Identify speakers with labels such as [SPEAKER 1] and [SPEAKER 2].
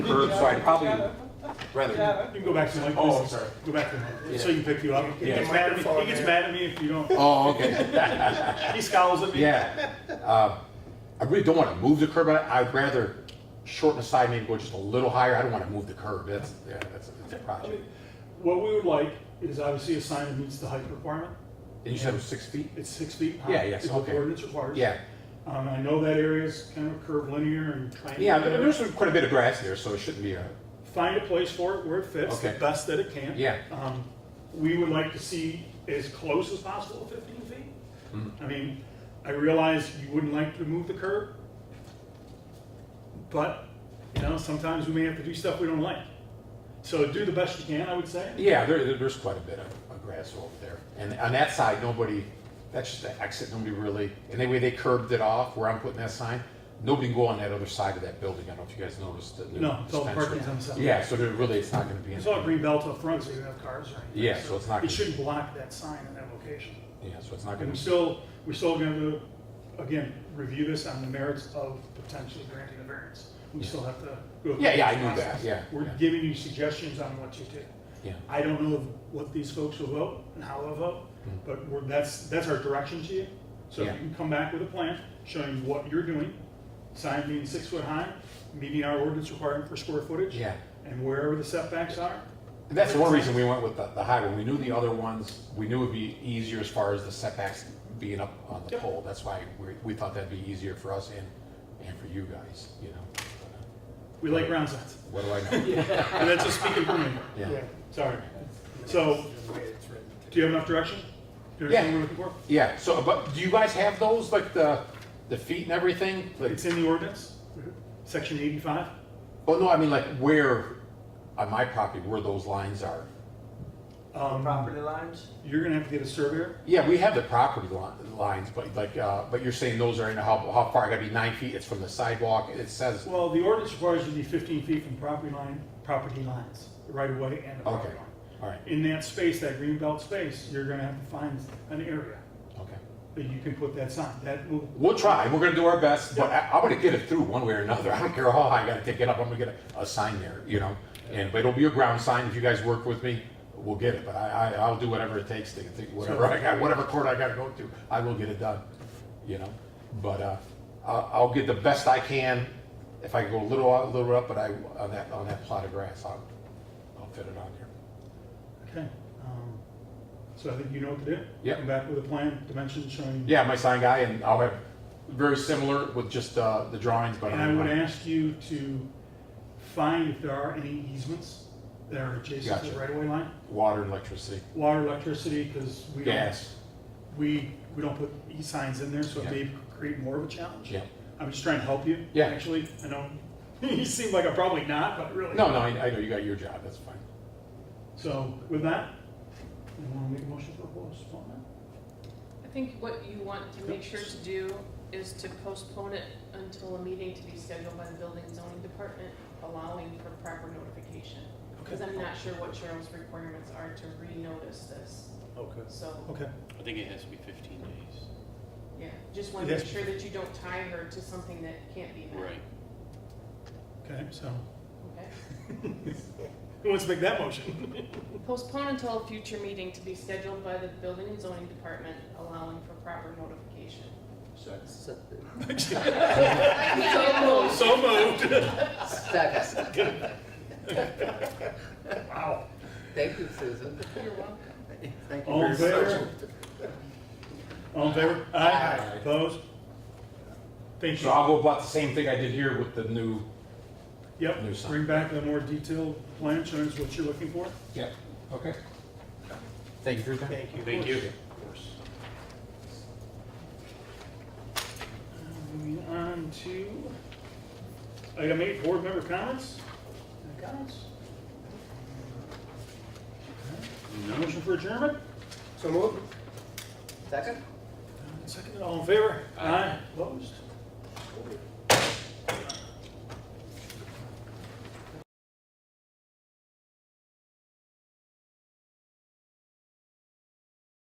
[SPEAKER 1] bird, so I'd probably rather.
[SPEAKER 2] You can go back to Mike,
[SPEAKER 1] Oh, I'm
[SPEAKER 2] please.
[SPEAKER 1] sorry.
[SPEAKER 2] Go back to Mike, so you can pick you up. He
[SPEAKER 1] Yeah.
[SPEAKER 2] gets mad at me, he gets mad at me if you don't,
[SPEAKER 1] Oh, okay,
[SPEAKER 2] he scowls at me.
[SPEAKER 1] yeah. Uh, I really don't want to move the curb, I- I'd rather shorten the side, maybe go just a little higher. I don't want to move the curb, that's, yeah, that's, that's a project.
[SPEAKER 2] What we would like is obviously a sign that meets the height requirement,
[SPEAKER 1] And you said it was six feet?
[SPEAKER 2] it's six feet high.
[SPEAKER 1] Yeah, yes,
[SPEAKER 2] is what
[SPEAKER 1] okay.
[SPEAKER 2] the ordinance requires.
[SPEAKER 1] Yeah,
[SPEAKER 2] Um, I know that area's kind of curved linear and.
[SPEAKER 1] yeah, there- there's quite a bit of grass there, so it shouldn't be a,
[SPEAKER 2] find a place for it where it fits, the
[SPEAKER 1] Okay.
[SPEAKER 2] best that it can.
[SPEAKER 1] Yeah.
[SPEAKER 2] Um, we would like to see as close as possible to fifteen feet.
[SPEAKER 1] Mm-hmm.
[SPEAKER 2] I mean, I realize you wouldn't like to move the curb, but, you know, sometimes we may have to do stuff we don't like. So do the best you can, I would say.
[SPEAKER 1] yeah, there, there- there's quite a bit of of grass over there. And on that side, nobody, that's just the exit, nobody really, and the way they curbed it off where I'm putting that sign, nobody can go on that other side of that building. I don't know if you guys noticed the new
[SPEAKER 2] No, it's all
[SPEAKER 1] dispensary.
[SPEAKER 2] parking's on the side.
[SPEAKER 1] Yeah, so there really, it's not going to be.
[SPEAKER 2] It's
[SPEAKER 1] any-
[SPEAKER 2] all green belt up front, so you don't have cars or anything.
[SPEAKER 1] Yeah, so it's not
[SPEAKER 2] It
[SPEAKER 1] gonna-
[SPEAKER 2] shouldn't block that sign in that location.
[SPEAKER 1] Yeah, so it's not
[SPEAKER 2] And
[SPEAKER 1] going
[SPEAKER 2] we
[SPEAKER 1] to,
[SPEAKER 2] still, we're still going to, again, review this on the merits of potentially granting a variance. We still have to go. through
[SPEAKER 1] Yeah, yeah, I
[SPEAKER 2] this
[SPEAKER 1] knew that,
[SPEAKER 2] process.
[SPEAKER 1] yeah,
[SPEAKER 2] We're
[SPEAKER 1] yeah.
[SPEAKER 2] giving you suggestions on what you do.
[SPEAKER 1] yeah,
[SPEAKER 2] I don't know what these folks will vote and how they'll vote, but we're, that's, that's our direction to you. So if
[SPEAKER 1] Mm-hmm. Yeah.
[SPEAKER 2] you can come back with a plan showing what you're doing, sign being six foot high, meeting our ordinance requirement for square footage.
[SPEAKER 1] yeah.
[SPEAKER 2] And wherever the setbacks are.
[SPEAKER 1] And that's one reason we went with the, the high one. We knew the other ones, we knew it'd be easier as far as the setbacks being up on the
[SPEAKER 2] Yep.
[SPEAKER 1] pole. That's why we, we thought that'd be easier for us and, and for you guys, you know? But, uh,
[SPEAKER 2] We like ground signs.
[SPEAKER 1] What do I know?
[SPEAKER 2] And that's just speaking for me.
[SPEAKER 1] Yeah.
[SPEAKER 2] Sorry. So, do you have enough direction? Do you understand what we're looking for?
[SPEAKER 1] Yeah, so, but do you guys have those, like the, the feet and everything? Like,
[SPEAKER 2] It's in the ordinance, section eighty-five.
[SPEAKER 1] oh, no, I mean, like where, on my property, where those lines are.
[SPEAKER 2] Um,
[SPEAKER 3] Property lines?
[SPEAKER 2] you're gonna have to get a surveyor.
[SPEAKER 1] Yeah, we have the property li- lines, but like, uh, but you're saying those are in, how, how far? I gotta be nine feet, it's from the sidewalk, it says,
[SPEAKER 2] Well, the ordinance requires you to be fifteen feet from property line, property lines, the right of way and the property
[SPEAKER 1] okay,
[SPEAKER 2] line.
[SPEAKER 1] all right,
[SPEAKER 2] In that space, that green belt space, you're gonna have to find an area
[SPEAKER 1] okay.
[SPEAKER 2] that you can put that sign. That will,
[SPEAKER 1] We'll try. We're gonna do our best, but I, I'm gonna get it through one way or another. I don't care how high I gotta take it up. I'm gonna get a, a sign there, you know. And but it'll be a ground sign. If you guys work with me, we'll get it. But I, I I'll do whatever it takes to, to whatever I got, whatever court I gotta go to, I will get it done, you know. But uh, I'll, I'll get the best I can. If I can go a little out, a little up, but I on that on that plot of grass, I'll I'll fit it on there.
[SPEAKER 2] okay. Um, So I think you know what to do.
[SPEAKER 1] Yep.
[SPEAKER 2] Come back with a plan, dimensions showing.
[SPEAKER 1] Yeah, my sign guy, and I'll have very similar with just uh, the drawings, but
[SPEAKER 2] And
[SPEAKER 1] I'm,
[SPEAKER 2] I would ask you to find if there are any easements that are adjacent to the
[SPEAKER 1] Gotcha.
[SPEAKER 2] right-of-way line,
[SPEAKER 1] water and electricity,
[SPEAKER 2] water, electricity, because we don't,
[SPEAKER 1] gas.
[SPEAKER 2] we, we don't put e-signs in there, so it
[SPEAKER 1] Yeah.
[SPEAKER 2] may create more of a challenge.
[SPEAKER 1] Yeah.
[SPEAKER 2] I'm just trying to help you.
[SPEAKER 1] Yeah.
[SPEAKER 2] Actually, I know, you seem like I'm probably not, but really.
[SPEAKER 1] No, no, I, I know you got your job. That's fine.
[SPEAKER 2] So with that, you want to make a motion for postponement?
[SPEAKER 4] I think what you want to make sure to do is to postpone it until a meeting to be scheduled by the building and zoning department, allowing for proper notification. Because I'm not sure what Cheryl's requirements are to renotice this,
[SPEAKER 2] Okay.
[SPEAKER 4] so,
[SPEAKER 2] Okay,
[SPEAKER 5] I think it has to be fifteen days.
[SPEAKER 4] yeah, just want to
[SPEAKER 2] Yes.
[SPEAKER 4] make sure that you don't tie her to something that can't be met.
[SPEAKER 5] Right.
[SPEAKER 2] okay, so,
[SPEAKER 4] Okay?
[SPEAKER 2] who wants to make that motion?
[SPEAKER 4] Postpone until a future meeting to be scheduled by the building and zoning department, allowing for proper notification.
[SPEAKER 2] So moved.
[SPEAKER 6] Second.
[SPEAKER 2] Wow.
[SPEAKER 6] Thank you, Susan.
[SPEAKER 4] You're welcome.
[SPEAKER 6] Thank
[SPEAKER 2] All in
[SPEAKER 6] you very much.
[SPEAKER 2] favor? All in favor?
[SPEAKER 1] Aye.
[SPEAKER 2] Opposed? Thank
[SPEAKER 1] So
[SPEAKER 2] you.
[SPEAKER 1] I'll go about the same thing I did here with the new. new
[SPEAKER 2] Yep,
[SPEAKER 1] sign.
[SPEAKER 2] bring back a more detailed plan showing us what you're looking for.
[SPEAKER 1] Yeah. Okay. Thank you for your time. Thank you.
[SPEAKER 5] Thank you.
[SPEAKER 2] Moving on to item eight, board member comments? Any Comments? Motion for adjournment?
[SPEAKER 6] So moved. Second?
[SPEAKER 2] Second, all in favor? Aye. Opposed?